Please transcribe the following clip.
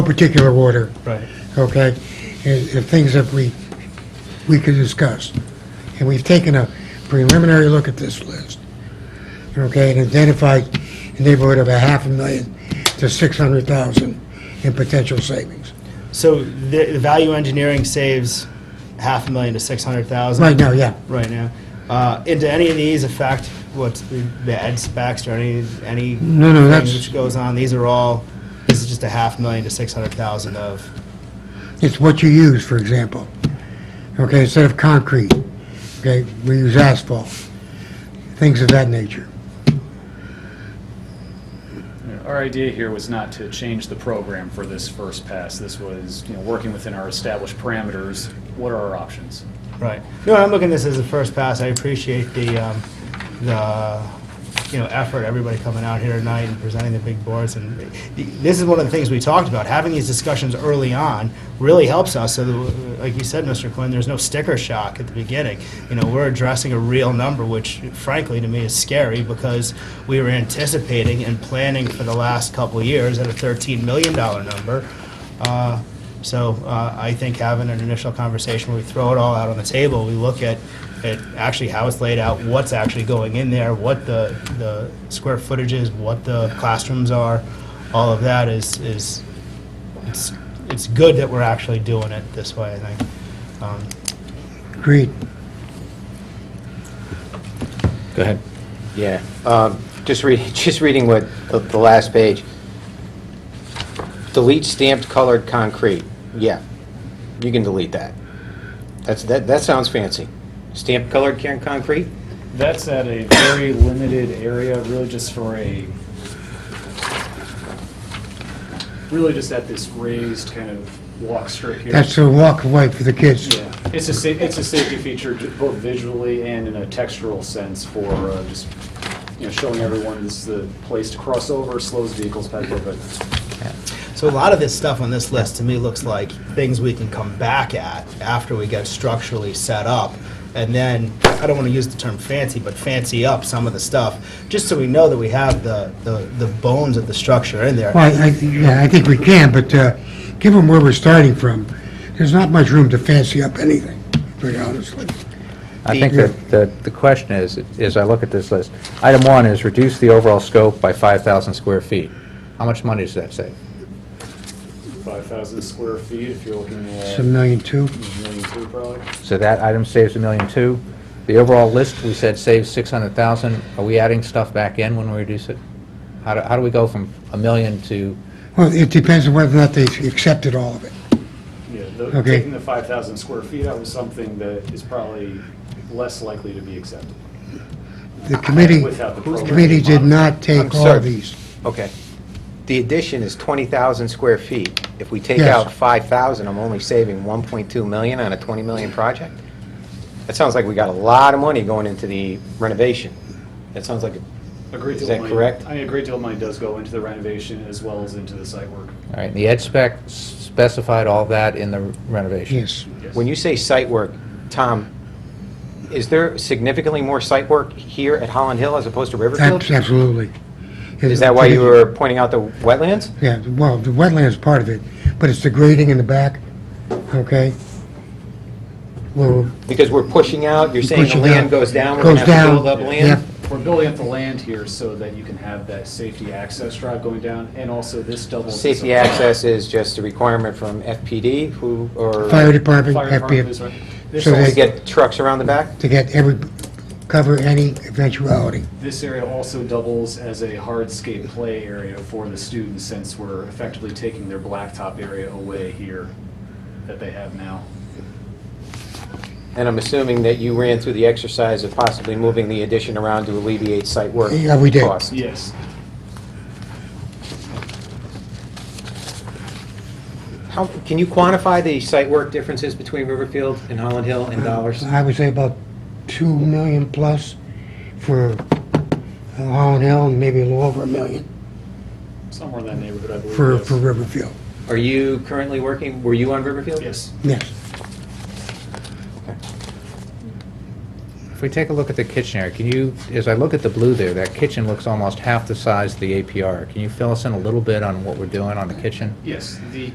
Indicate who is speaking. Speaker 1: particular order,
Speaker 2: Right.
Speaker 1: okay? And and things that we, we could discuss. And we've taken a preliminary look at this list, okay, and identified a neighborhood of a half a million to 600,000 in potential savings.
Speaker 2: So the, the value engineering saves half a million to six hundred thousand.
Speaker 1: Right now, yeah.
Speaker 2: Right now. Uh, and do any of these affect what's the, the ed specs or any, any?
Speaker 1: No, no,
Speaker 2: thing
Speaker 1: that's-
Speaker 2: Which goes on, these are all, this is just a half million to six hundred thousand of,
Speaker 1: It's what you use, for example. Okay, instead of concrete, okay, we use asphalt, things of that nature.
Speaker 3: Our idea here was not to change the program for this first pass. This was, you know, working within our established parameters, what are our options?
Speaker 2: right. No, I'm looking at this as a first pass. I appreciate the, um, the, you know, effort, everybody coming out here tonight and presenting the big boards. And this is one of the things we talked about. Having these discussions early on really helps us. So, that, like you said, Mr. Quinn, there's no sticker shock at the beginning. You know, we're addressing a real number, which frankly to me is scary because we were anticipating and planning for the last couple of years at a $13 million number. Uh, so uh, I think having an initial conversation where we throw it all out on the table, we look at, at actually how it's laid out, what's actually going in there, what the, the square footage is, what the classrooms are, all of that is, is, it's, it's good that we're actually doing it this way, I think. Um,
Speaker 1: Agreed.
Speaker 4: Go ahead.
Speaker 5: Yeah, um, just read, just reading what, the- the last page. Delete stamped colored concrete, yeah, you can delete that. That's, that, that sounds fancy. Stamped colored can, concrete?
Speaker 3: That's at a very limited area, really just for a, really just at this raised kind of walk strip here.
Speaker 1: That's a walk away for the kids.
Speaker 3: Yeah, it's a, sa- it's a safety feature ju- both visually and in a textural sense for uh, just, you know, showing everyone this is the place to cross over, slows vehicles back over, but
Speaker 2: So a lot of this stuff on this list to me looks like things we can come back at after we get structurally set up. And then, I don't want to use the term fancy, but fancy up some of the stuff, just so we know that we have the, the, the bones of the structure in there.
Speaker 1: Well, I, I- yeah, I think we can, but uh, given where we're starting from, there's not much room to fancy up anything, very honestly.
Speaker 4: I think that, that the question is, as I look at this list, item one is reduce the overall scope by 5,000 square feet. How much money does that save?
Speaker 3: 5,000 square feet if you're looking
Speaker 1: It's
Speaker 3: at
Speaker 1: a
Speaker 3: a
Speaker 1: million two.
Speaker 3: million two probably.
Speaker 4: So that item saves a million two. The overall list, we said saves 600,000. Are we adding stuff back in when we reduce it? How do, how do we go from a million to,
Speaker 1: Well, it depends on whether or not they accepted all of it.
Speaker 3: Yeah, the-
Speaker 1: Okay.
Speaker 3: taking the 5,000 square feet out was something that is probably less likely to be accepted
Speaker 1: The committee,
Speaker 3: without the
Speaker 1: the
Speaker 3: program.
Speaker 1: committee did not take
Speaker 5: I'm
Speaker 1: all
Speaker 5: sorry.
Speaker 1: of these.
Speaker 5: Okay. The addition is 20,000 square feet. If we take
Speaker 1: Yes.
Speaker 5: out 5,000, I'm only saving 1.2 million on a 20 million project? That sounds like we got a lot of money going into the renovation. That sounds like, a-
Speaker 3: A great
Speaker 5: Is
Speaker 3: deal of
Speaker 5: that
Speaker 3: money-
Speaker 5: correct?
Speaker 3: I mean, a great deal of money does go into the renovation as well as into the site work.
Speaker 4: all right, and the ed spec specified all that in the renovation?
Speaker 1: Yes.
Speaker 3: Yes.
Speaker 5: when you say site work, Tom, is there significantly more site work here at Holland Hill as opposed to Riverfield?
Speaker 1: Abs- Absolutely.
Speaker 5: Is that why you were pointing out the wetlands?
Speaker 1: Yeah, well, the wetland is part of it, but it's the grading in the back, okay? Well,
Speaker 5: Because we're pushing out, you're saying the
Speaker 1: Pushing out.
Speaker 5: land goes down, we're
Speaker 1: Goes
Speaker 5: going to have to
Speaker 1: down,
Speaker 5: build up
Speaker 1: yeah.
Speaker 5: land?
Speaker 3: We're building up the land here so that you can have that safety access drive going down, and also this doubles. as a-
Speaker 5: Safety access is just a requirement from FPD, who, or...
Speaker 1: fire department,
Speaker 3: Fire department is
Speaker 1: FPF,
Speaker 3: right. This
Speaker 1: So they
Speaker 5: To
Speaker 3: also-
Speaker 5: get trucks around the back?
Speaker 1: to get every, cover any eventuality.
Speaker 3: This area also doubles as a hardscape play area for the students, since we're effectively taking their blacktop area away here that they have now.
Speaker 5: And I'm assuming that you ran through the exercise of possibly moving the addition around to alleviate site work
Speaker 1: Yeah, we did.
Speaker 5: costs.
Speaker 3: Yes.
Speaker 5: How, can you quantify the site work differences between Riverfield and Holland Hill in dollars?
Speaker 1: I would say about 2 million plus for uh, Holland Hill, and maybe a little over a million
Speaker 3: Somewhere in that neighborhood, I believe.
Speaker 1: for,
Speaker 3: yes.
Speaker 1: for Riverfield,
Speaker 5: Are you currently working, were you on Riverfield?
Speaker 3: Yes.
Speaker 1: yes.
Speaker 4: If we take a look at the kitchen area, can you, as I look at the blue there, that kitchen looks almost half the size of the APR. Can you fill us in a little bit on what we're doing on the kitchen?
Speaker 3: Yes, the